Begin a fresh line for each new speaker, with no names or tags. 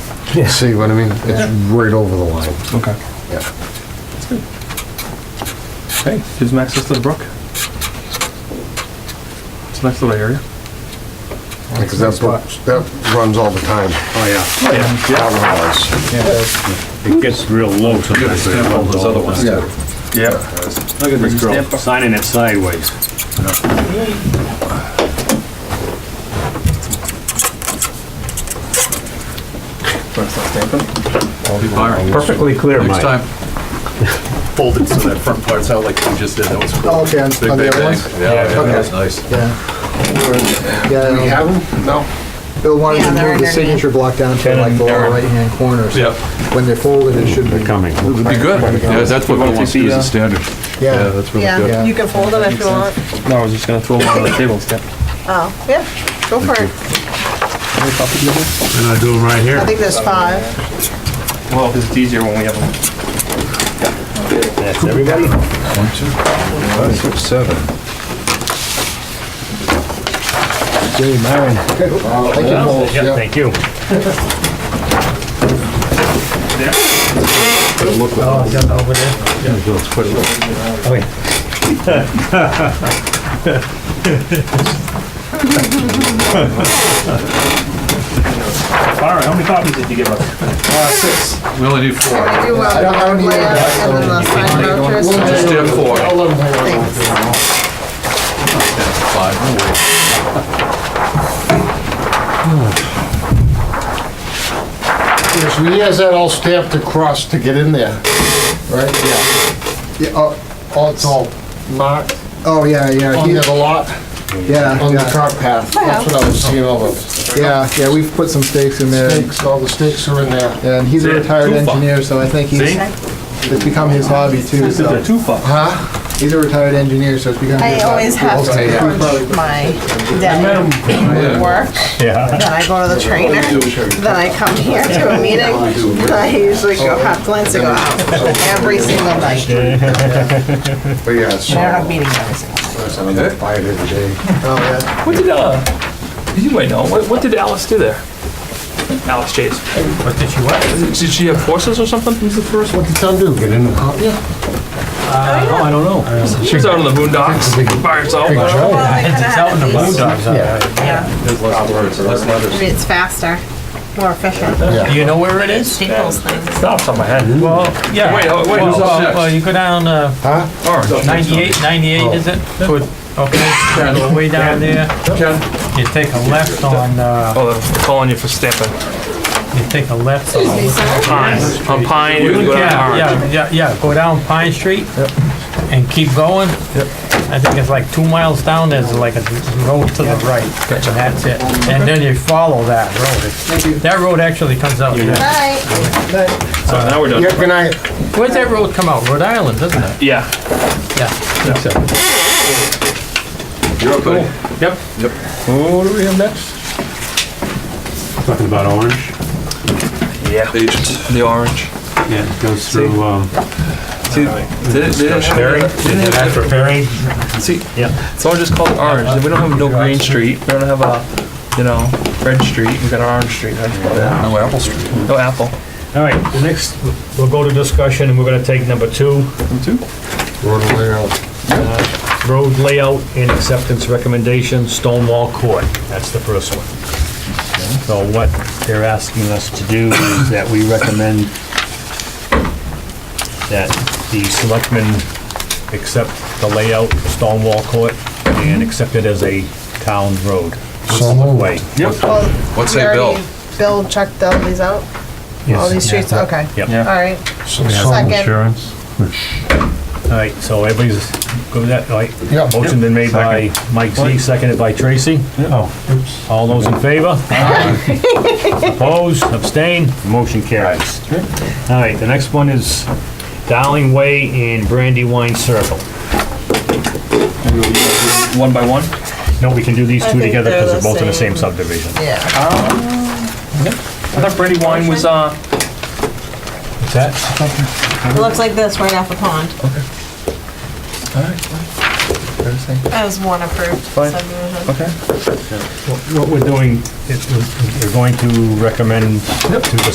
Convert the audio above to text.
See what I mean? It's right over the line.
Okay.
Yeah.
Hey, gives them access to the brook. It's a nice little area.
Because that, that runs all the time. Oh, yeah. That
It gets real low sometimes.
Stamp all
those other ones
too.
Yeah.
Look at this girl signing it sideways.
Perfectly clear, Mike.
Next time. Folded so that front part's out like you just did, that was cool.
Oh, okay, on-
Big,
on the
big
other
bang.
ones?
Yeah, yeah,
Okay.
that was nice.
Yeah.
runs. We
Yeah,
have them? No?
Bill wanted to
Yeah, they're
move the
underneath.
signature block down to like the lower right-hand corner. so
Yep.
When they're folded, it should be.
Coming.
It would be good. Yeah, that's what Bill wants to do as a standard. Yeah,
uh, Yeah,
that's really good.
Yeah, you can fold them if you want.
No, I was just gonna throw one on the table instead.
Oh, yeah, go for it.
And I do them right
I
here.
think there's five.
Well, because it's easier when we have them.
That's everybody?
One, two, five, six, seven.
Uh,
thank you, Paul.
Yeah, thank you.
All right, how many copies did you give us?
We only need four.
I do want
I don't need
one and then the sign vouchers.
Just do four.
I'll let them hang on.
Thanks.
Five, no way.
Yes, we has that all stamped across to get in there, right? Yeah. Yeah, oh, oh, it's all marked
Oh, yeah, yeah,
on
he-
the lot,
yeah,
on the
yeah,
cart path. That's what I was seeing, all the
yeah, yeah, we've put some stakes in there.
stakes, all the stakes are in there.
And he's a
See?
retired
Too far.
engineer, so I think he's,
See?
it's become his hobby too,
This is a
so.
two-fuck.
Huh? He's a retired engineer, so it's become his
I
hobby.
always have to
Okay, yeah.
crunch my day at work. Then I go to the trainer, then I come here to a meeting, then I usually go half glance and go out every single night. I
But yeah, so,
don't have meetings every single night.
I'm gonna buy it every day.
Oh, yeah.
What did, uh, you might know, what, what did Alice do there? Alice Chase. What did she what? Did she have horses or something? Who's the first
What did Tom do, get in the car?
I don't know. She was out in the boondocks by herself. I don't know.
Well, I kinda have at least- yeah. I mean, It's faster, more efficient.
Yeah.
You know where it is?
Staples things.
Stops on my head. Well, yeah.
Wait, oh, wait,
Well,
who's
uh, well,
next?
you go down, uh,
Huh?
Orange.
98, 98 is it? Toward- Okay, way down there,
Oh. Ken?
you take a left on, uh,
Oh, they're calling you for stamping.
you take a left on.
Pine, on Pine, you go down
Yeah,
Orange.
yeah, yeah, yeah, go down Pine Street and keep going. I think it's like two miles down, there's like a road to the right, and that's it. And then you follow that road. That road actually comes out. here.
Bye.
So now we're done.
Yeah, good night.
Where's that road come out? Rhode Island, doesn't it?
Yeah.
Yeah, I think so.
You're up, buddy.
Yep.
What do we have next?
Talking about orange.
Agents.
The orange.
Yeah, it goes through, um,
See, they- they didn't have- they didn't have-
after Ferry.
See, it's all just called orange. We don't have no green street. We don't have a, you know, red street. We got orange street. That's about it.
No Apple Street.
No apple.
All right, the next, we'll go to discussion, and we're gonna take number two,
Road layout.
Uh, road layout and acceptance recommendation, Stonewall Court. That's the first one. So what they're asking us to do is that we recommend that the selectmen accept the layout of Stonewall Court and accept it as a town road. Stonewall Way.
Well,
What's
you
that bill?
already- Bill checked all these out? All these streets, okay.
Yep.
All right, second,
Insurance.
All right, so everybody's, go that, all right.
Yeah.
Motion been made by Mike Z, seconded by Tracy.
Oh, oops.
All those in favor? Opposed, abstained, motion carries. All right, the next one is Darling Way and Brandywine Circle.
One by one.
No, we can do these
I
two
think
together because
they're
they're
the
both in the same
same.
subdivision.
yeah.
I thought Brandywine was, uh,
What's that?
It looks like this right off the pond. That was one approved
Fine.
subdivision.
okay.
What we're doing, is we're going to recommend to the